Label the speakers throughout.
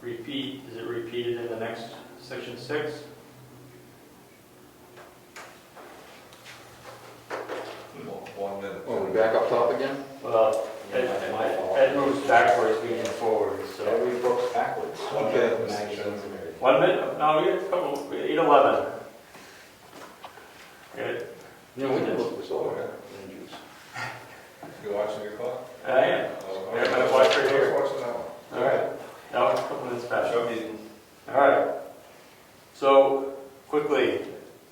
Speaker 1: repeat, is it repeated in the next section six?
Speaker 2: One minute.
Speaker 3: Oh, we back up top again?
Speaker 4: Well, Ed, Ed moves backwards, we move forward, so.
Speaker 5: Every book's backwards.
Speaker 2: Okay.
Speaker 5: Magazines and everything.
Speaker 1: One minute, no, we got a couple, eight eleven. Good,
Speaker 3: Yeah, we can look this
Speaker 2: Oh,
Speaker 3: over.
Speaker 2: yeah. You watching your clock?
Speaker 1: I am,
Speaker 2: Oh,
Speaker 1: Yeah,
Speaker 2: okay.
Speaker 1: but watch right here.
Speaker 2: I was watching that one.
Speaker 1: all right, now it's a couple minutes faster.
Speaker 2: Show me.
Speaker 1: All right, so quickly,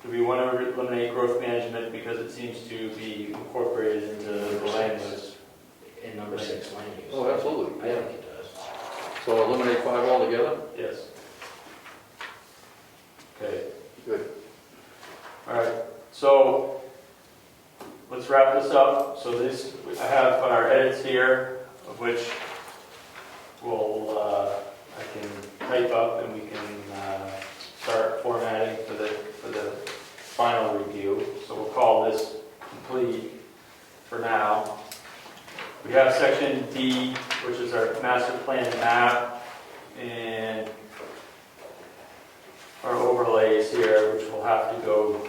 Speaker 1: do we want to eliminate growth management because it seems to be incorporated into the land use?
Speaker 4: In number six, land use.
Speaker 3: Oh, absolutely,
Speaker 4: I think
Speaker 3: yeah.
Speaker 4: it does.
Speaker 3: So eliminate five altogether?
Speaker 1: Yes. Okay,
Speaker 3: Good.
Speaker 1: all right, so let's wrap this up. So this, I have our edits here, of which will, uh, I can type up and we can uh, start formatting for the, for the final review. So we'll call this complete for now. We have section D, which is our master plan map and our overlays here, which we'll have to go,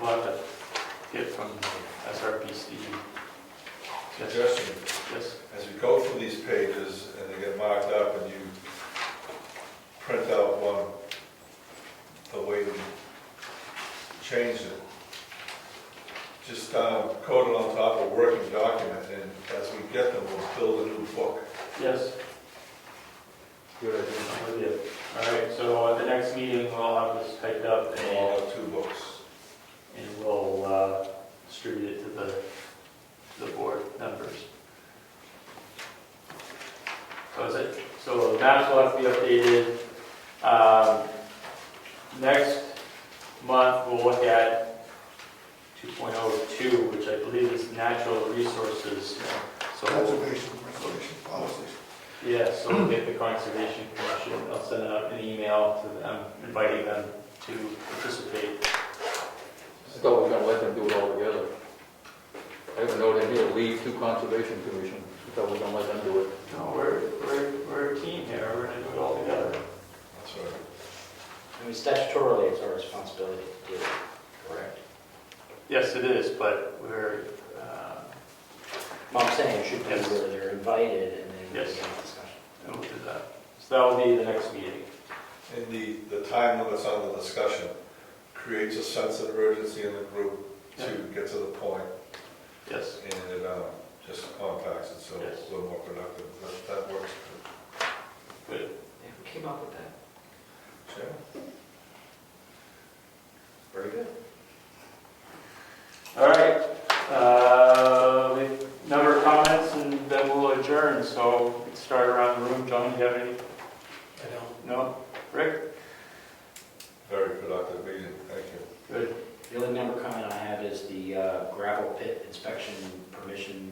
Speaker 1: we'll have to get from SRP Steve. Yes,
Speaker 2: Suggestion,
Speaker 1: yes,
Speaker 2: as you go through these pages and they get marked up and you print out one, the way we changed it, just um, code it on top of a working document and as we get them, we'll build a new book.
Speaker 1: yes.
Speaker 3: Good idea.
Speaker 1: I'm with you. All right, so at the next meeting, we'll have this typed up
Speaker 2: And
Speaker 1: and
Speaker 2: we'll have two books.
Speaker 1: and we'll uh, distribute it to the, the board members. So is it, so the maps will have to be updated. Um, Next month, we'll look at 2.02, which I believe is natural resources. So we'll-
Speaker 6: Conservation, regulation, policies.
Speaker 1: yeah, so we'll get the Conservation Commission, I'll send out an email to them, um, inviting them to participate.
Speaker 3: I thought we were gonna let them do it all together. I have a note in here, leave to conservation commission. I thought we were gonna let them do it.
Speaker 1: No, we're, we're, we're a team here, we're gonna do it all together.
Speaker 2: That's right.
Speaker 4: I mean, statutorily, it's our responsibility to do it, correct?
Speaker 1: Yes, it is, but we're, uh,
Speaker 4: Well, I'm saying it should be
Speaker 1: Yes.
Speaker 4: where they're invited and then we
Speaker 1: Yes.
Speaker 4: can have a discussion.
Speaker 1: we'll do that. So that will be the next meeting.
Speaker 2: And the, the time limits on the discussion creates a sense of urgency in the group to get to the point,
Speaker 1: Yes.
Speaker 2: and it um, just compacts it, so it's
Speaker 1: Yes.
Speaker 2: a little more productive. That- That works.
Speaker 1: Good.
Speaker 4: Yeah, who came up with that?
Speaker 2: Sure.
Speaker 4: Very good.
Speaker 1: All right, uh, we have a number of comments and then we'll adjourn, so let's start around the room. John, do you have any?
Speaker 4: I don't
Speaker 1: No? Rick?
Speaker 2: Very productive meeting, thank you.
Speaker 1: Good.
Speaker 4: The only number comment I have is the uh, gravel pit inspection permission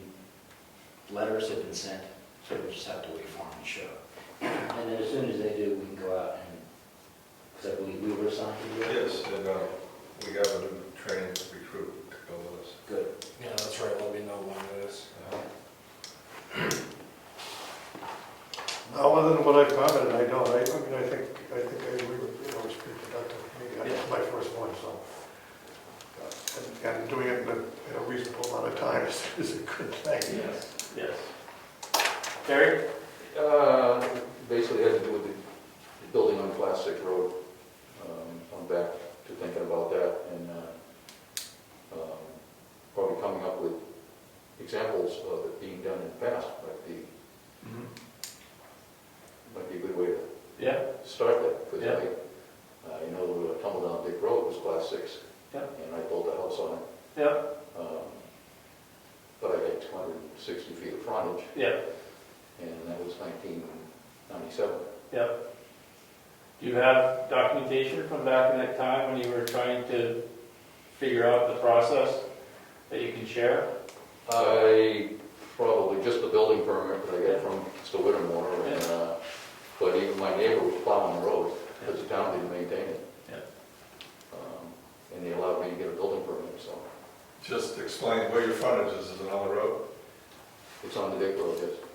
Speaker 4: letters have been sent, so we just have to wait for them to show. And then as soon as they do, we can go out and, because I believe we were assigned to do it.
Speaker 2: Yes, and um, we have a new trained recruit to go with us.
Speaker 4: Good.
Speaker 5: Yeah, that's right, let me know when it is.
Speaker 6: No, other than what I commented, I don't, I, I mean, I think, I think I agree with, you know, it's pretty productive. I mean, that's my first one, so. uh, And and doing it in a in a reasonable amount of time is, is a good thing.
Speaker 1: Yes. Yes. Terry?
Speaker 3: Uh, basically had to do with the building on Class 6 Road. Um, I'm back to thinking about that and uh, um, probably coming up with examples of it being done in the past might be, might be a good way to
Speaker 1: Yeah,
Speaker 3: start that. Because
Speaker 1: Yeah.
Speaker 3: I, uh, you know, the Tumble Down Dick Road was Class 6.
Speaker 1: Yeah.
Speaker 3: And I built a house on it.
Speaker 1: yeah,
Speaker 3: Um, But I had 260 feet of frontage
Speaker 1: yeah,
Speaker 3: and that was 1997.
Speaker 1: yeah. Do you have documentation from back in that time when you were trying to figure out the process that you can share? Uh,
Speaker 3: I probably, just the building permit that I got from Mr. Whittemore, and, uh, but even my neighbor was plowing the road, because the town didn't maintain it.
Speaker 1: Yeah.
Speaker 3: Um, And they allowed me to get a building permit, so
Speaker 2: Just explain where your frontage is, is it on the road?
Speaker 3: it's on the Dick Road, yes.